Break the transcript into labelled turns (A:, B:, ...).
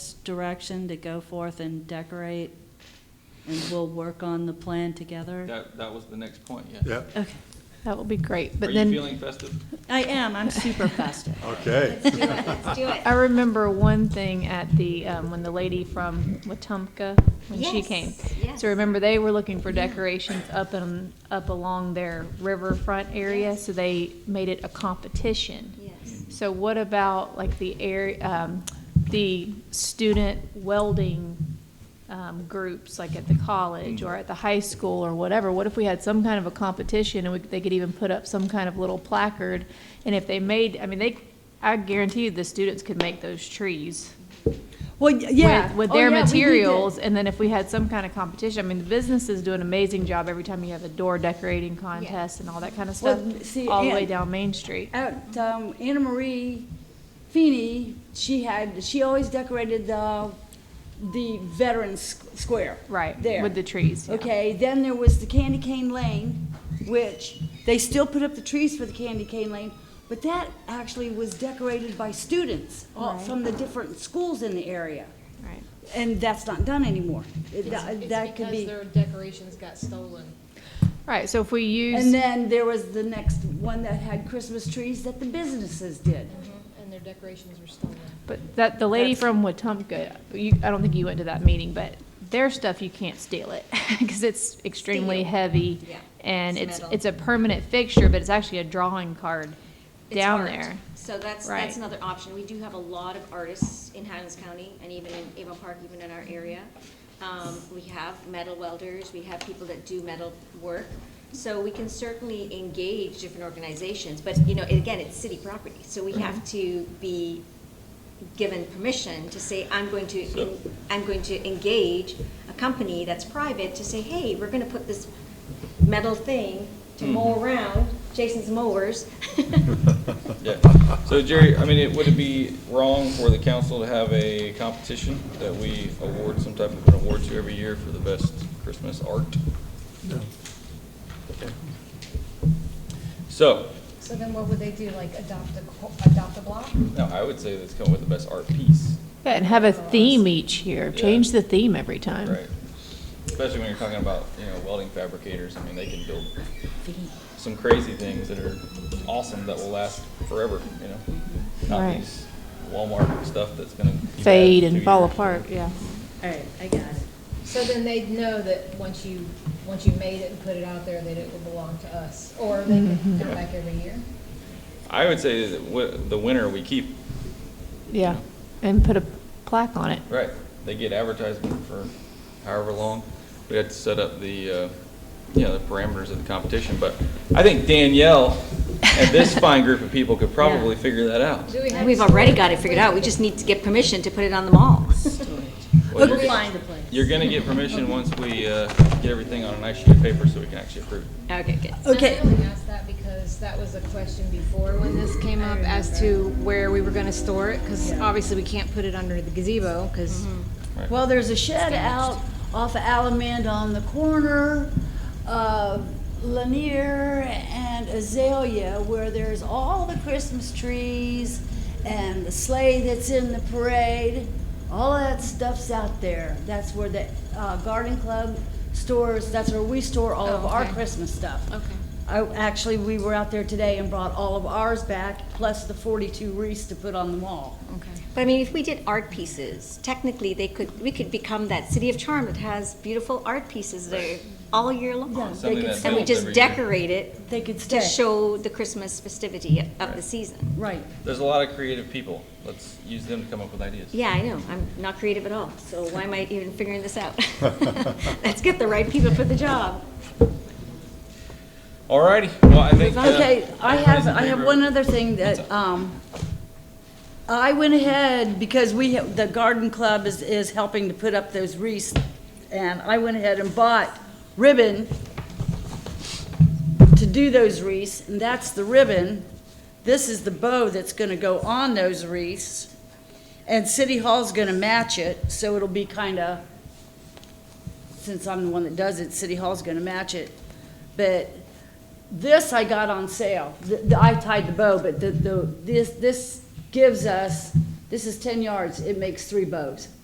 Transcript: A: direction to go forth and decorate, and we'll work on the plan together?
B: That, that was the next point, yeah.
C: Yeah,
A: Okay,
D: That will be great,
B: Are
D: but
B: you
D: then
B: feeling festive?
A: I am, I'm super festive.
C: okay.
E: Let's do it, let's do it.
D: I remember one thing at the, um, when the lady from Wetumpka, when she
E: Yes,
D: came.
E: yes.
D: So remember, they were looking for decorations up and, up along their riverfront area,
E: Yes.
D: so they made it a competition.
E: Yes.
D: So what about like the air, um, the student welding, um, groups, like at the college or at the high school or whatever? What if we had some kind of a competition and we, they could even put up some kind of little placard? And if they made, I mean, they, I guarantee you the students could make those trees
A: Well, Oh,
D: with,
F: Oh,
D: with their materials. And then if we had some kind of competition, I mean, the businesses do an amazing job every time you have a door decorating contest and all that kind of
A: Well,
D: stuff,
F: see,
D: all the way
F: and-
D: down Main Street.
F: At, um, Anna Marie Feeney, she had, she always decorated the, the Veterans Squ- Square.
D: Right,
F: There.
D: with the trees, yeah.
F: Okay, then there was the Candy Cane Lane, which they still put up the trees for the Candy Cane Lane, but that actually was decorated by students all from the different schools in the area.
D: Right.
F: And that's not done anymore. It- That that
G: It's
F: could
G: because
F: be.
G: their decorations got stolen.
D: Right, so if we use.
F: And then there was the next one that had Christmas trees that the businesses did.
G: And their decorations were stolen.
D: But that, the lady from Wetumpka, you, I don't think you went to that meeting, but their stuff, you can't steal it, because it's extremely
E: Steel.
D: heavy.
E: Yeah.
D: And
E: It's
D: it's,
E: metal.
D: it's a permanent fixture, but it's actually a drawing card
E: It's
D: down
E: art.
D: there.
E: So that's,
D: Right.
E: that's another option. We do have a lot of artists in Highlands County and even in Avon Park, even in our area. Um, we have metal welders, we have people that do metal work. So we can certainly engage different organizations, but you know, again, it's city property. So we have to be given permission to say, I'm going to, I'm going to engage a company that's private to say, hey, we're gonna put this metal thing to mow around Jason's mowers.
B: Yeah. So Jerry, I mean, it, would it be wrong for the council to have a competition that we award some type of an award to every year for the best Christmas art? Okay. So,
G: So then what would they do, like adopt a, adopt a block?
B: now I would say let's come with the best art piece,
D: Yeah, and have a theme each year, change the theme every time.
B: right? Especially when you're talking about, you know, welding fabricators, I mean, they can build some crazy things that are awesome that will last forever, you know? Not
D: Right.
B: these Walmart stuff that's gonna. be bad
D: Fade
B: in
D: and
B: two
D: fall
B: years.
D: apart, yeah.
A: All right, I got it.
G: So then they'd know that once you, once you made it and put it out there, that it would belong to us, or they could come back every year?
B: I would say that wi- the winner we keep,
D: Yeah, and put a plaque on it.
B: right? They get advertisement for however long. We had to set up the, uh, you know, the parameters of the competition, but I think Danielle and this fine group of people could probably figure that out.
G: Do we have
E: We've
G: a
E: already
G: store?
E: got it figured out, we just need to get permission to put it on the mall.
B: Well,
A: We'll
B: you're-
A: find a place.
B: You're gonna get permission once we, uh, get everything on a nice sheet of paper so we can actually approve.
E: Okay, good.
A: Okay.
G: And I only asked that because that was a question before when this came up as to where we were gonna store it, because obviously we can't put it under the gazebo, because
F: Well, there's a shed out off of Alamand on the corner of Lanier and Azalea where there's all the Christmas trees and the sleigh that's in the parade. All of that stuff's out there. That's where the uh, garden club stores, that's where we store all
A: Oh,
F: of our
E: okay.
F: Christmas stuff.
E: Okay.
F: I, actually, we were out there today and brought all of ours back, plus the 42 wreaths to put on the wall.
E: But I mean, if we did art pieces, technically, they could, we could become that city of charm that has beautiful art pieces there all year long.
B: Something
F: could-
B: that
E: And we
B: builds
E: just
B: every year.
E: decorate it
F: They could stay.
E: to show the Christmas festivity of the season.
F: Right.
B: There's a lot of creative people. Let's use them to come up with ideas.
E: Yeah, I know, I'm not creative at all, so why am I even figuring this out? Let's get the right people for the job.
B: Alrighty, well, I think. uh,
F: Okay, I have,
B: everybody's in
F: I have
B: favor.
F: one other thing that, um, I went ahead, because we, ha- the garden club is, is helping to put up those wreaths, and I went ahead and bought ribbon to do those wreaths, and that's the ribbon. This is the bow that's gonna go on those wreaths, and City Hall's gonna match it, so it'll be kinda, since I'm the one that does it, City Hall's gonna match it. But this I got on sale. The- the- I tied the bow, but the, the, this, this gives us, this is ten yards, it makes three bows.